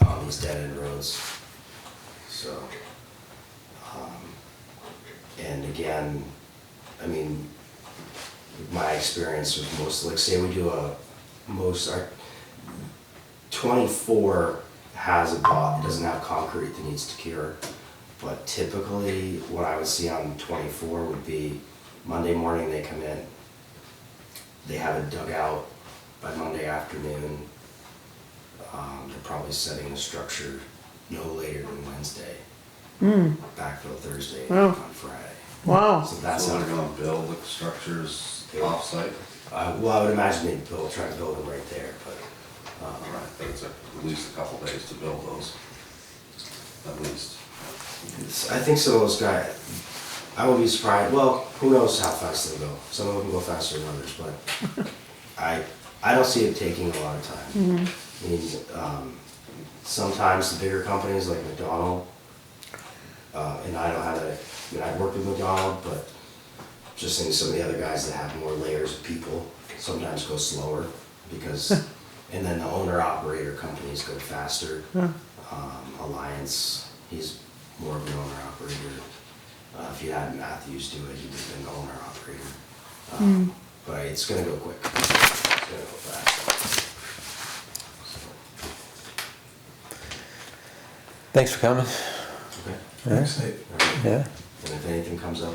becomes dead-end roads. So, um, and again, I mean, my experience with most, like, say we do a, most, our, twenty-four has a bot, doesn't have concrete that needs to cure. But typically, what I would see on twenty-four would be Monday morning, they come in, they have it dug out by Monday afternoon. Um, they're probably setting the structure no later than Wednesday, Hmm, backfill Thursday, Wow. on Friday. wow, So that's So how they're gonna build the structures off-site? Uh, well, I would imagine they'd build, try to build them right there, but, um, Alright, that's at least a couple days to build those, at least. it's- I think some of those guys, I would be surprised, well, who knows how fast they go. Some of them go faster than others, but I, I don't see it taking a lot of time. Mm-hmm. I mean, um, sometimes the bigger companies like McDonald, uh, and I don't have that, I mean, I've worked with McDonald, but just seeing some of the other guys that have more layers of people sometimes go slower because, and then the owner operator companies go faster. Um, Alliance, he's more of an owner operator. Uh, if you had Matthews do it, he'd have been the owner operator. Um, But it's gonna go quick. It's gonna go fast. So, Thanks for coming. Okay. Thanks, All right. Uh, Yeah. And if anything comes up,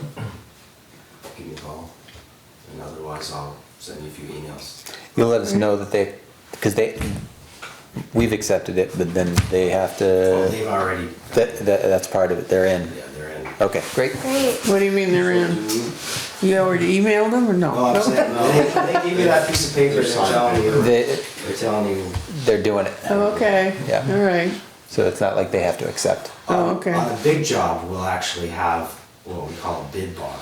give me a call. And otherwise, I'll send you a few emails. You'll let us know that they, because they, we've accepted it, but then they have Well, to, they've already. Uh, that, Oh. that, that's part of it, they're in. Yeah, they're in. Okay, great. Great. what do you mean they're in? You already emailed them or no? No, I'm saying, no, they, they give you that piece of paper, They're they're signed telling you, they're They, telling you. they're doing it, Oh, Okay, Yeah. all right, so it's not like they have to accept. oh, okay. uh, On a big job, we'll actually have what we call a bid bond,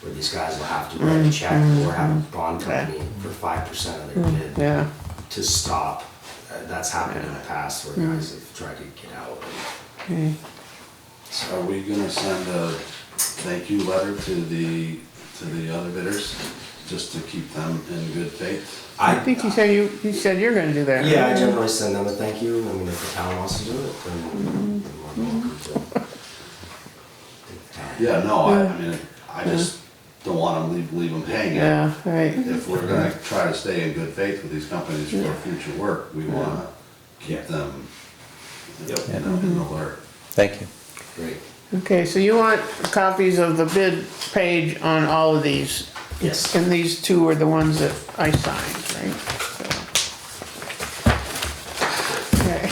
where these guys will have to write a check or have a bond Mm, Okay. Mm, company for five percent of their bid Yeah, to stop. Uh, That's happened in the past where Mm. guys have tried to get out. okay, Are we gonna send a thank you letter to the, to the other bidders, just to keep them in good faith? I think you I, said you, you said you're gonna do that. right? yeah, I generally send them a thank you, I mean, if the town wants to do it, Mm-hmm. then then we're welcome to. Yeah, no, I, Yeah. I mean, I just don't wanna leave, leave them hanging. Yeah, right, If we're gonna try to stay in good faith with these companies for future work, we wanna keep them, you know, in Mm-hmm. the alert. Thank you. Great, okay, so you want copies of the bid page on all of these? yes. And these two are the ones that I signed, right? So. Okay.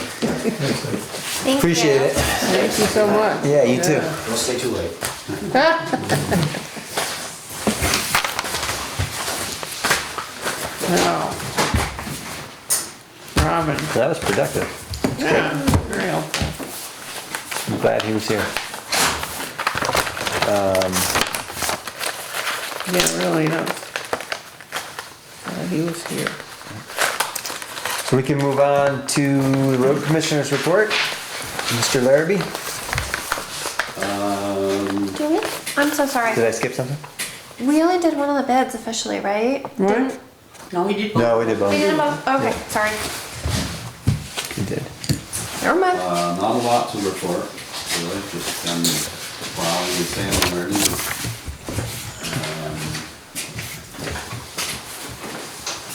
Thank Appreciate you. it. Thank you so much. Yeah, you too. Don't stay too late. Now, Robin, That was productive. yeah, very helpful. I'm glad he was here. Yeah, really, no. Glad he was here. So we can move on to the road commissioner's report. Mr. Larrabee, Um, Do we? I'm so sorry. did I skip something? We only did one of the bids officially, right? What? No, we did. No, we did both. We did them both. Okay, Yeah. sorry. We did. Never mind. Uh, not a lot to report, really, just been plowing and sanding where needed. Um,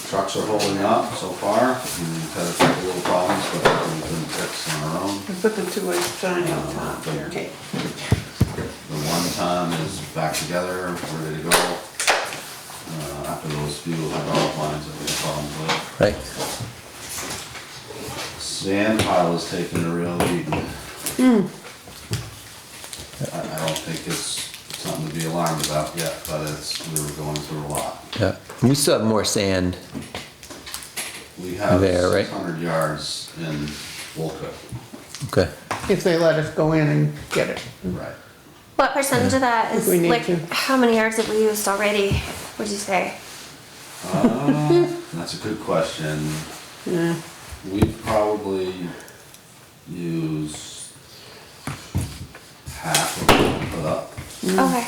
Trucks are holding up so far, we've had a couple little problems, but we've been fixing our own. I put the two-way sign out top there. Okay. The one ton is back together, ready to go. Uh, after those few hydraulic lines that we had problems with. Right. Sand pile is taking a real beating. I, I don't think it's something to be alarmed about yet, but it's, we were going through a lot. Yeah. We still have more sand. We have There, right? six hundred yards in Wolcott. Okay. If they let us go in and get it. Hmm. Right. What percentage of that is We need like to. how many yards have we used already? Would you say? Uh, That's a good question. Yeah, We probably use half of what we put up, Mm. Okay.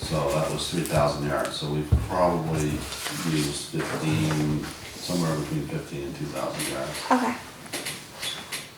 so that was three thousand yards, so we've probably used fifteen, somewhere between fifteen and two thousand yards. Okay.